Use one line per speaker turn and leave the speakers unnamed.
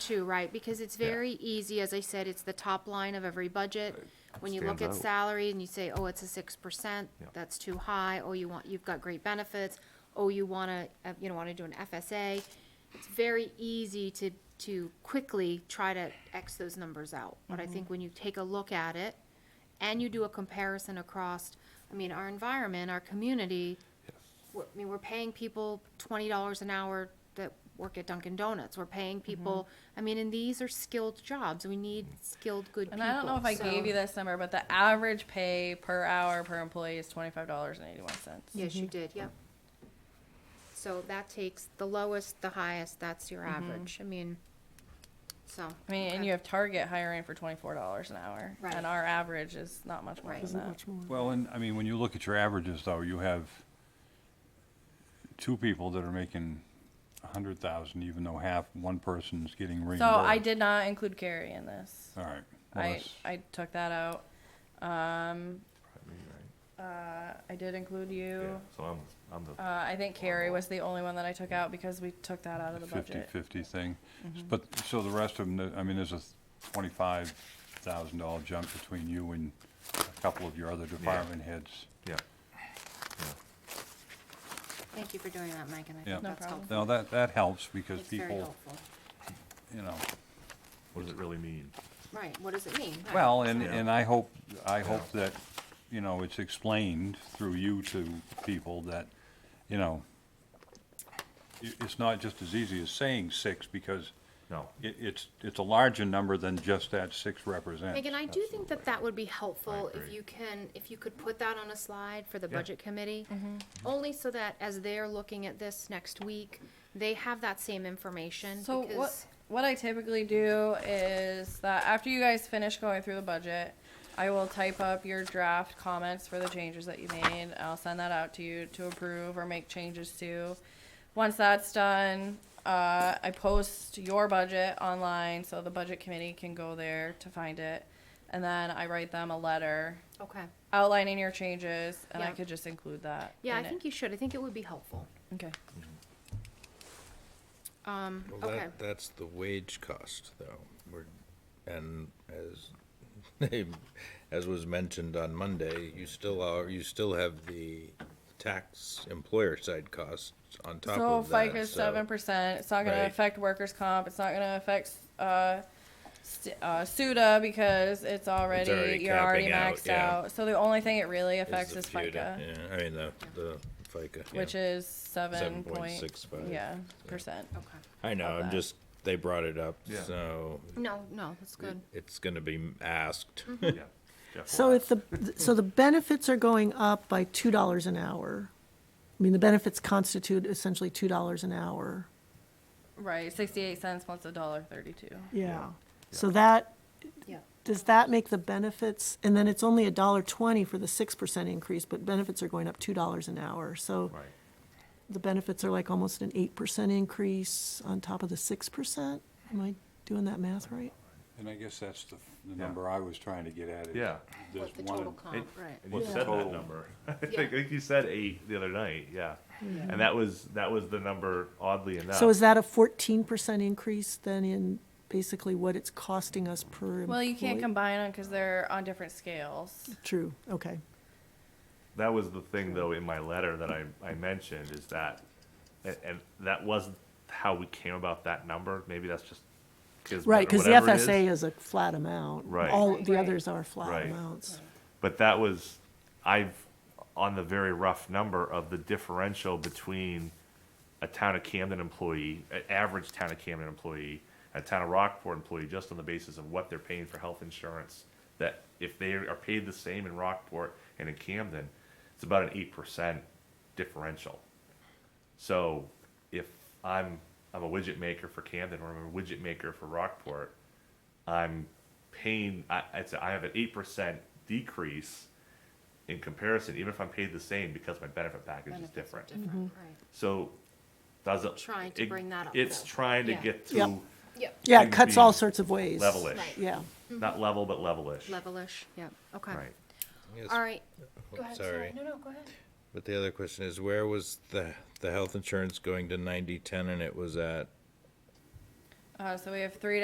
too, right? Because it's very easy, as I said, it's the top line of every budget. When you look at
Stands out.
salary and you say, oh, it's a six percent,
Yeah.
that's too high, oh, you want, you've got great benefits, oh, you wanna, uh, you know, wanna do an FSA. It's very easy to, to quickly try to X those numbers out. But
Mm-hmm.
I think when you take a look at it and you do a comparison across, I mean, our environment, our community, we're, I mean, we're paying people twenty dollars an hour that work at Dunkin' Donuts. We're paying
Mm-hmm.
people. I mean, and these are skilled jobs. We need skilled, good
And
people.
I don't know if I
So-
gave you this number, but the average pay per hour per employee is twenty-five dollars and eighty-one cents.
Yes, you did. Yep. So that takes the lowest, the highest. That's your average. I mean, so
Mm-hmm. I mean, and you have Target hiring for twenty-four dollars an hour,
Right.
and our average is not much more
Right.
than that.
Well, and, I mean, when you look at your averages though, you have two people that are making a hundred thousand, even though half, one person's getting reimbursed.
So I did not include Carrie in this.
All right. Well,
I,
that's-
I took that out. Um, uh, I did include you.
So I'm, I'm the.
Uh, I think Carrie was the only one that I took out because we took that out of the budget. Mm-hmm.
50/50 thing. But, so the rest of them, I mean, there's a twenty-five thousand dollar jump between you and a couple of your other department heads.
Yeah.
thank you for doing that, Mike. And I
Yeah.
think
No
that's
problem.
helpful.
Now, that, that helps because
It's very
people,
helpful.
you know,
What does it really mean?
Right. What does it mean? Right.
well, and,
Yeah.
and I hope, I hope that, you know, it's explained through you to people that, you know, i- it's not just as easy as saying six because
No.
it, it's, it's a larger number than just that six represents.
Megan, I do think that that would be helpful
I
if
agree.
you can, if you could put that on a slide for the
Yeah.
budget committee. Only so that as they're looking at this next week, they have that same information.
So what
because-
what I typically do is that after you guys finish going through the budget, I will type up your draft comments for the changes that you made. I'll send that out to you to approve or make changes to. Once that's done, uh, I post your budget online so the budget committee can go there to find it. And then I write them a letter
Okay,
outlining your changes, and I
Yeah.
could just include that.
yeah, I
in it.
think you should, I think it would be helpful.
Okay.
Um,
Well,
okay,
that, that's the wage cost, though. We're, and as, as was mentioned on Monday, you still are, you still have the tax employer side costs on top
So
of that.
FICA is
so-
seven percent. It's not gonna
Right.
affect workers' comp. It's not gonna affect, uh, st- uh, SUDA because it's already,
already
you're already
capping out,
maxed
yeah.
out. So the only thing it really
is
affects
the
is FICA,
FUTA, Yeah, I mean, the, the FICA. yeah.
which is seven point,
7.65.
yeah, percent.
okay.
I know,
of
I'm
that.
just, they brought it up,
Yeah.
so
No, no, that's good.
it's gonna be asked.
Mm-hmm.
Yeah. Jeff
So
will
if the, so the benefits are going up by two dollars an hour. I mean, the benefits constitute essentially two dollars an hour.
Right, sixty-eight cents plus a dollar thirty-two.
Yeah. So that,
Yeah.
does that make the benefits, and then it's only a dollar twenty for the six percent increase, but benefits are going up two dollars an hour. So
Right.
the benefits are like almost an eight percent increase on top of the six percent? Am I doing that math right?
And I guess that's the, the number I was trying to get at. is
Yeah.
There's
What the
one,
total
in-
Oh,
comp, right.
And you
What's the
said that
total?
number. I
Yeah.
think, I think you said eight the other night, yeah. And that was, that was the number oddly enough.
So is that a fourteen percent increase then in basically what it's costing us per
Well, you can't
employee?
combine them because they're on different scales.
True, okay.
That was the thing though in my letter that I, I mentioned is that, and, and that wasn't how we came about that number. Maybe that's just.
Right, because the
whatever it is.
FSA is a flat amount.
Right.
All the
Right.
others are flat
Right.
amounts.
But that was, I've, on the very rough number of the differential between a town of Camden employee, an average town of Camden employee, a town of Rockport employee, just on the basis of what they're paying for health insurance, that if they are paid the same in Rockport and in Camden, it's about an eight percent differential. So if I'm, I'm a widget maker for Camden or I'm a widget maker for Rockport, I'm paying, I, I'd say I have an eight percent decrease in comparison, even if I'm paid the same, because my benefit package is
Benefits are
different.
Different,
So, does it?
Trying to
it-
bring that up,
It's
though.
trying to
Yeah.
get
Yep.
to
right. Yep,
Yeah,
Could
it cuts
be
all sorts of ways.
levelish,
Right.
Yeah.
not
Mm-hmm.
level, but levelish,
levelish, yep, okay.
right?
Yes,
All right,
oh,
go ahead, sorry,
Sorry.
no, no, go ahead.
But the other question is, where was the, the health insurance going to ninety, ten, and it was at
Uh, so we have three